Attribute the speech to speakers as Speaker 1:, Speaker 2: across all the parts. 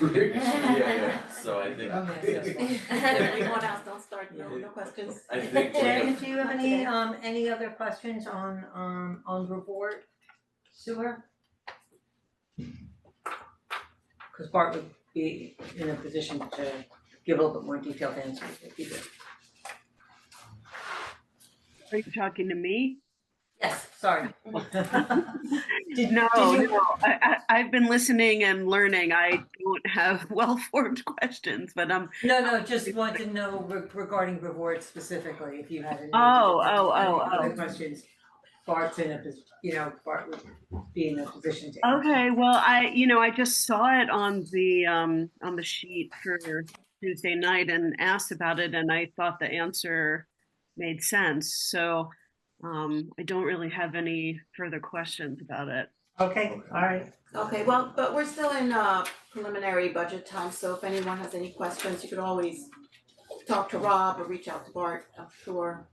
Speaker 1: Yeah, yeah, so I think,
Speaker 2: Okay.
Speaker 3: Everyone else, don't start, no, no questions.
Speaker 1: I think we're
Speaker 4: Jerry,
Speaker 1: gonna,
Speaker 4: do you have
Speaker 3: Not
Speaker 4: any
Speaker 3: today.
Speaker 4: um any other questions on um on reward sewer? Cause Bart would be in a position to give a little bit more detailed answers if you did.
Speaker 5: Are you talking to me?
Speaker 4: Yes, sorry. Did
Speaker 5: No,
Speaker 1: Oh,
Speaker 4: did you,
Speaker 5: no. I, I, I've been listening and learning. I don't have well-formed questions, but um.
Speaker 4: no, no, just want to know re- regarding reward specifically, if you had any.
Speaker 5: Oh, oh, oh,
Speaker 4: other
Speaker 5: oh.
Speaker 4: questions. Bart's in a, pos- you know, Bart would be in a position to. answer.
Speaker 5: Okay, well, I you know I just saw it on the um on the sheet for Tuesday night and asked about it, and I thought the answer made sense. So um, I don't really have any further questions about it.
Speaker 4: Okay, all right.
Speaker 3: Okay, well, but we're still in uh preliminary budget time, so if anyone has any questions, you could always talk to Rob or reach out to Bart, I'm sure.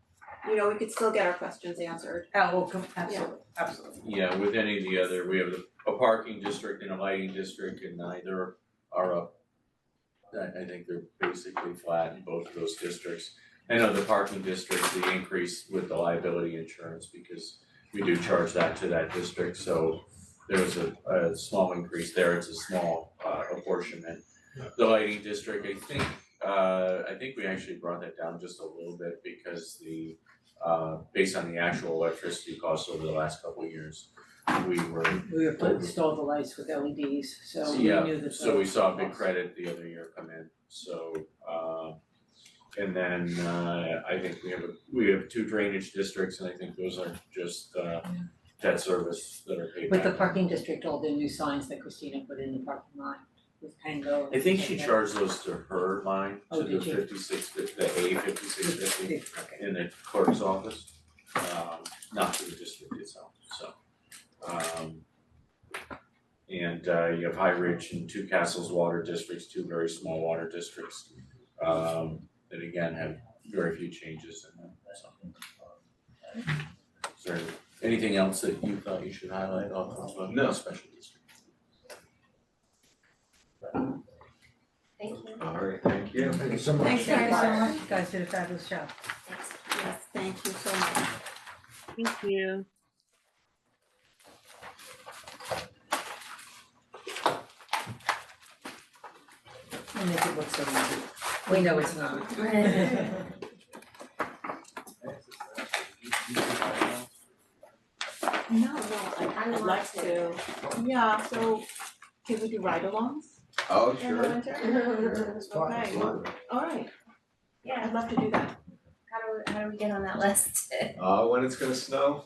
Speaker 3: You know, we could still get our questions answered.
Speaker 4: Oh, well, com- absolutely, absolutely.
Speaker 1: yeah, with any of the other, we have a parking district and a lighting district and neither are up. I I think they're basically flat in both of those districts. I know the parking district, the increase with the liability insurance because we do charge that to that district, so there was a a small increase there, it's a small uh apportionment. The lighting district, I think, uh I think we actually brought that down just a little bit because the uh based on the actual electricity costs over the last couple of years, we were
Speaker 4: We were putting install the lights with LEDs, so we
Speaker 1: yeah,
Speaker 4: knew that.
Speaker 1: so we saw a big
Speaker 4: costs.
Speaker 1: credit the other year come in, so uh and then uh I think we have a, we have two drainage districts and I think those are just uh debt service that are paid
Speaker 4: With the
Speaker 1: back.
Speaker 4: parking district, all the new signs that Christina put in the parking lot with Pango.
Speaker 1: I think she
Speaker 4: and-
Speaker 1: charged those to her line,
Speaker 4: Oh,
Speaker 1: to the
Speaker 4: did she?
Speaker 1: fifty six, the A fifty six fifty
Speaker 4: Okay,
Speaker 1: in the clerk's office, um not to the district itself, so um and uh you have High Ridge and Two Castles Water Districts, two very small water districts um that again have very few changes in them, so. Is there anything else that you thought you should highlight off of
Speaker 2: No.
Speaker 1: the special district?
Speaker 3: Thank you.
Speaker 2: Alright, thank you.
Speaker 6: Thank you so much.
Speaker 3: Thanks,
Speaker 4: Thank you so
Speaker 3: guys.
Speaker 4: much, you guys did a fabulous job.
Speaker 3: Yes, thank you so much.
Speaker 5: Thank you.
Speaker 4: You make it look so easy. We know it's not.
Speaker 3: No, no, I would like
Speaker 7: um,
Speaker 3: to, yeah, so can we do ride-alongs
Speaker 2: Oh,
Speaker 3: in the
Speaker 2: sure.
Speaker 3: winter?
Speaker 6: It's fine, it's fine.
Speaker 3: Alright,
Speaker 7: Yeah,
Speaker 3: I'd love to do that.
Speaker 7: how do we, how do we get on that list?
Speaker 2: Uh, when it's gonna snow. um,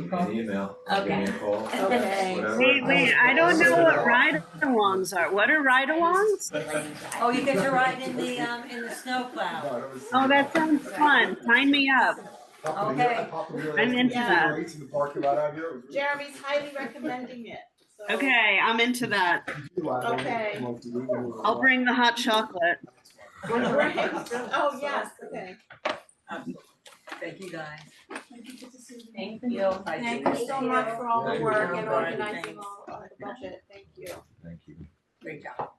Speaker 2: Give me an email, give me a call,
Speaker 3: Okay.
Speaker 2: whatever.
Speaker 5: Wait, wait, I don't know what ride-alongs are. What are ride-alongs?
Speaker 4: Oh, you get to ride in the, um, in the snowplow.
Speaker 6: No, that was-
Speaker 5: Oh, that sounds fun. Sign me up.
Speaker 6: Popped in here- I
Speaker 4: Okay.
Speaker 6: popped in here
Speaker 5: I'm
Speaker 6: last
Speaker 5: into
Speaker 6: week,
Speaker 5: that.
Speaker 6: there were eights in the parking lot out here. It was really-
Speaker 3: Jeremy's highly recommending it, so.
Speaker 5: Okay, I'm into that.
Speaker 3: Okay.
Speaker 5: I'll bring the hot chocolate.
Speaker 3: Right. Oh, yes, okay.
Speaker 4: Thank you guys.
Speaker 7: Thank you.
Speaker 3: Thank you so much for all the
Speaker 2: Thank
Speaker 3: work
Speaker 4: you.
Speaker 3: and organizing
Speaker 4: Thanks.
Speaker 3: all of the budget, thank you.
Speaker 6: Thank you.
Speaker 4: Great job.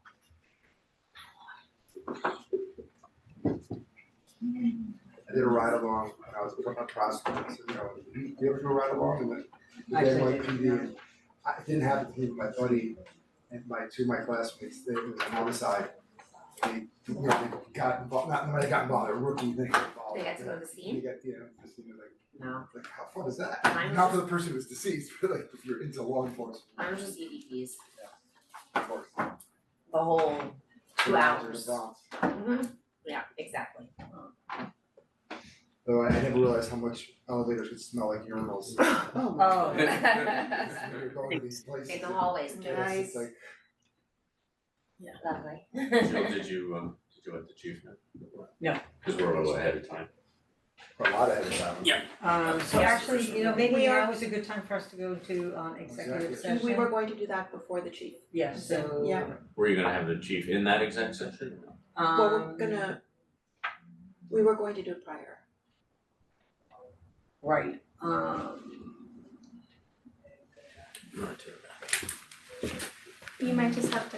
Speaker 6: I did a ride along when I was a prospect, so, you know, you ever do a ride along and then the
Speaker 4: I
Speaker 6: day
Speaker 4: actually
Speaker 6: went
Speaker 4: did,
Speaker 6: PD. I didn't have to leave my buddy and my, two of my classmates, they were on one side. They, you know, they got involved, not, not they got involved, a rookie, they got involved.
Speaker 7: They got um, to go to the
Speaker 6: You
Speaker 7: scene.
Speaker 6: get, you know, just, you know, like,
Speaker 4: No.
Speaker 6: like, how fun is that?
Speaker 7: Mine was
Speaker 6: Not for the person who's deceased, but like, if you're into law enforcement.
Speaker 7: Mine was just EVPs.
Speaker 6: of course.
Speaker 7: The whole. Two hours.
Speaker 6: Involved.
Speaker 7: Yeah, exactly.
Speaker 6: Though I I never realized how much elevators could smell like urinals.
Speaker 4: Oh,
Speaker 6: When you're going to these places.
Speaker 7: Okay, the hallways,
Speaker 6: it's
Speaker 7: good.
Speaker 6: just like,
Speaker 7: Lovely.
Speaker 1: Jill, did you um did you let the chief know?
Speaker 4: No.
Speaker 1: Cause we're a little ahead of time.
Speaker 6: a lot of it, um,
Speaker 4: um, so actually, you know, maybe
Speaker 3: We are-
Speaker 4: now is a good time for us to go to, um, executive
Speaker 6: Executive.
Speaker 4: session.
Speaker 3: We were going to do that before the chief,
Speaker 4: Yeah, so.
Speaker 3: Yeah.
Speaker 1: Were you gonna have the chief in that exec session?
Speaker 3: well, we're
Speaker 4: um,
Speaker 3: gonna, we were going to do it prior.
Speaker 4: Right, um.
Speaker 1: No, I took it back.
Speaker 7: You might just have to